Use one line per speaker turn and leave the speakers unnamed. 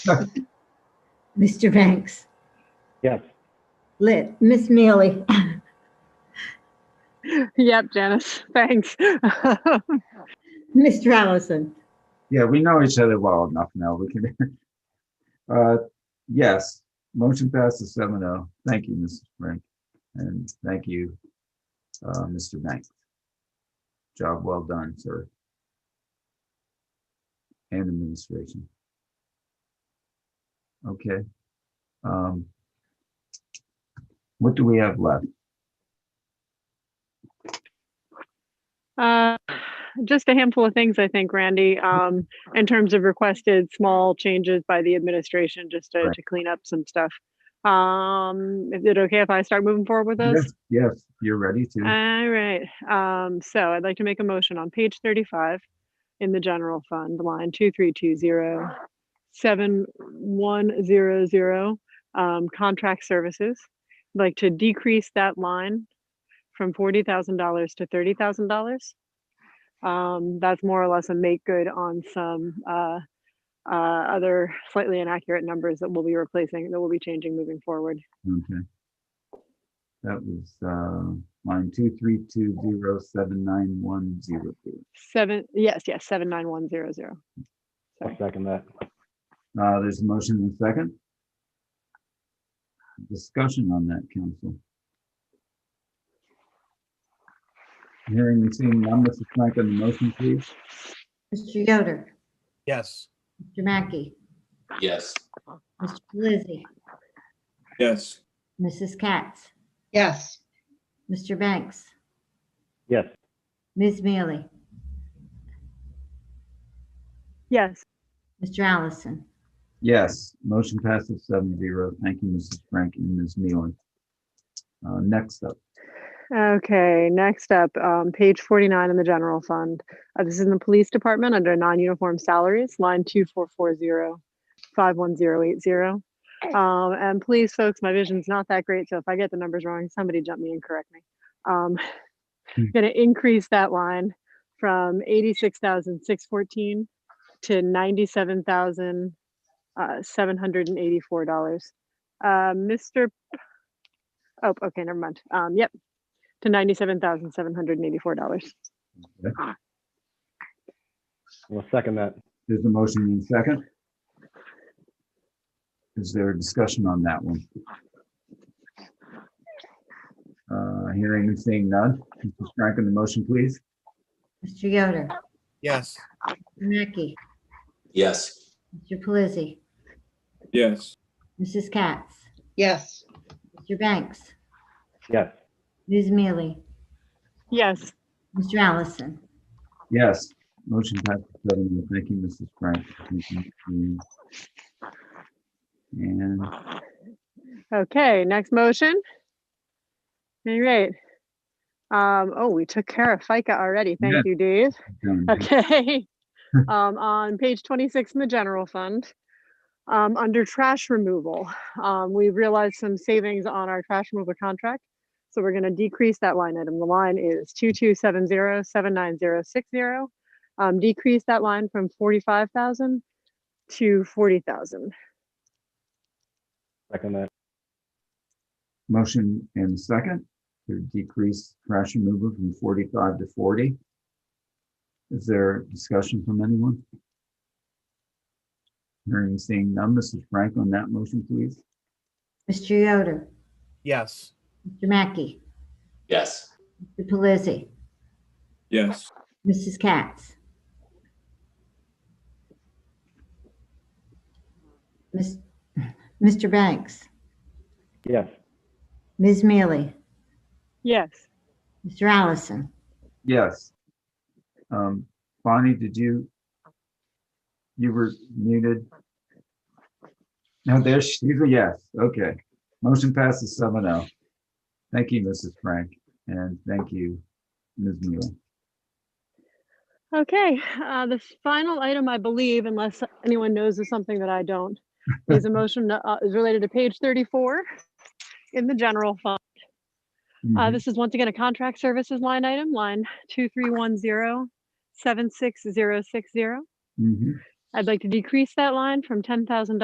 Mr. Banks?
Yes.
Lit, Miss Mealy?
Yep, Janice, thanks.
Mr. Allison?
Yeah, we know each other well enough now. We can. Uh, yes, motion passes seven oh. Thank you, Mrs. Frank. And thank you, uh, Mr. Knight. Job well done, sir. And administration. Okay. Um. What do we have left?
Uh, Just a handful of things, I think, Randy, um, in terms of requested small changes by the administration, just to,
Right.
to clean up some stuff. Um, is it okay if I start moving forward with those?
Yes, Yes, you're ready to.
All right, um, so I'd like to make a motion on page thirty-five in the general fund, line two, three, two, zero, seven, one, zero, zero, um, contract services. I'd Like to decrease that line from forty thousand dollars to thirty thousand dollars. Um, that's more or less a make good on some, uh, uh, other slightly inaccurate numbers that we'll be replacing, that we'll be changing moving forward.
Okay. That was uh, line two three two zero seven nine one zero two.
Seven, yes, yes, seven, nine, one, zero, zero.
I'll second that.
Uh, there's a motion and a second. Discussion on that, council. Hearing and seeing none, Mrs. Frank on the motion, please.
Mr. Yoder?
Yes.
Mr. Mackey?
Yes.
Mr. Pelisi?
Yes.
Mrs. Katz?
yes,
Mr. Banks?
Yes.
Ms. Mealy?
Yes,
Mr. Allison?
Yes, motion passes seven zero. Thank you, Mrs. Frank and Ms. Nealon. Uh, next up,
Okay, next up, um, page forty-nine in the general fund. Uh, this is in the police department under non-uniform salaries, line two four four zero, five one zero eight zero. Um, and please, folks, my vision's not that great, so if I get the numbers wrong, somebody jump me and correct me. Um,
Hmm.
gonna increase that line from eighty-six thousand six fourteen to ninety-seven thousand, uh, seven hundred and eighty-four dollars. Uh, Mr. P- Oh, okay, never mind. Um, yep, to ninety-seven thousand seven hundred and eighty-four dollars.
I'll second that.
there's a motion and a second. Is there a discussion on that one? Uh, hearing and seeing none, Mrs. Frank on the motion, please.
Mr. Yoder?
Yes.
Mr. Mackey?
Yes.
Mr. Pelisi?
Yes.
Mrs. Katz?
yes,
Mr. Banks?
Yes.
Ms. Mealy?
Yes,
Mr. Allison?
Yes, motion passes seven. zero. Thank you, Mrs. Frank. Thank you, Mr. Meehan. And
okay, next motion. All right. Um, oh, we took care of FICA already.
Yeah.
Thank you, Dave.
done.
Okay. Um, on page twenty-six in the general fund, um, under trash removal, um, we realized some savings on our trash removal contract. So we're gonna decrease that line item. The line is two-two-seven-zero-seven-nine-zero-six-zero. Um, decrease that line from forty-five thousand to forty thousand.
Second that.
motion and second to decrease trash removal from forty-five to forty. Is there discussion from anyone? Hearing and seeing none, Mrs. Frank on that motion, please.
Mr. Yoder?
Yes.
Mr. Mackey?
Yes.
Mr. Pelisi?
Yes.
Mrs. Katz? Miss- Mr. Banks?
Yes.
Ms. Mealy?
Yes.
Mr. Allison?
Yes. Um, Bonnie, did you? You were muted. No, there she, yes, okay. Motion passes seven oh. Thank you, Mrs. Frank, and thank you, Ms. Mueller.
Okay, uh, the final item, I believe, unless anyone knows of something that I don't, is a motion, uh, is related to page thirty-four in the general fund. Uh,
Mhm.
this is once again a contract services line item, line two, three, one, zero, seven, six, zero, six, zero.
Mhm.
I'd like to decrease that line from ten thousand dollars